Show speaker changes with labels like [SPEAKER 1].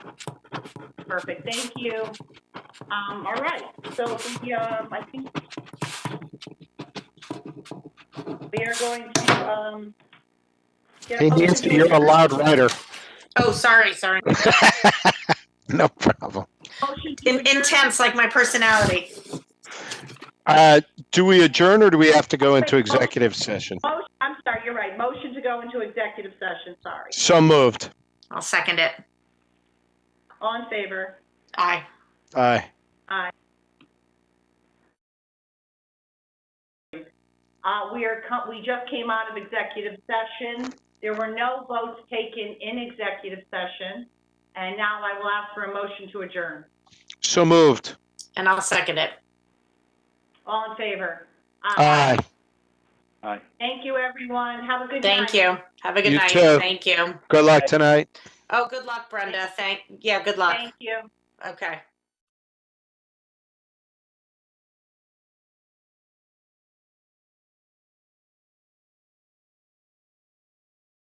[SPEAKER 1] Perfect, thank you. Um, all right, so the, um, I think we are going to, um, get a
[SPEAKER 2] Hey
[SPEAKER 1] motion
[SPEAKER 2] Nancy,
[SPEAKER 1] to
[SPEAKER 2] you're a
[SPEAKER 1] adjourn-
[SPEAKER 2] loud writer.
[SPEAKER 3] Oh, sorry, sorry.
[SPEAKER 2] No problem.
[SPEAKER 1] motion to
[SPEAKER 3] In-
[SPEAKER 1] adjourn.
[SPEAKER 3] Intense, like my personality.
[SPEAKER 2] Uh, Do we adjourn or do we have to go into executive session?
[SPEAKER 1] Motion- I'm sorry, you're right, motion to go into executive session, sorry.
[SPEAKER 2] So moved.
[SPEAKER 3] I'll second it.
[SPEAKER 1] All in favor?
[SPEAKER 3] Aye.
[SPEAKER 2] Aye.
[SPEAKER 1] Uh, we are, co- we just came out of executive session. There were no votes taken in executive session. And now I will ask for a motion to adjourn.
[SPEAKER 2] So moved.
[SPEAKER 3] And I'll second it.
[SPEAKER 1] All in favor?
[SPEAKER 2] Aye.
[SPEAKER 1] Thank you, everyone. Have a good night.
[SPEAKER 3] Thank you. Have a good
[SPEAKER 2] You
[SPEAKER 3] night.
[SPEAKER 2] too.
[SPEAKER 3] Thank you.
[SPEAKER 2] Good luck tonight.
[SPEAKER 3] Oh, good luck, Brenda. Thank, yeah, good luck.
[SPEAKER 1] Thank you.
[SPEAKER 3] Okay.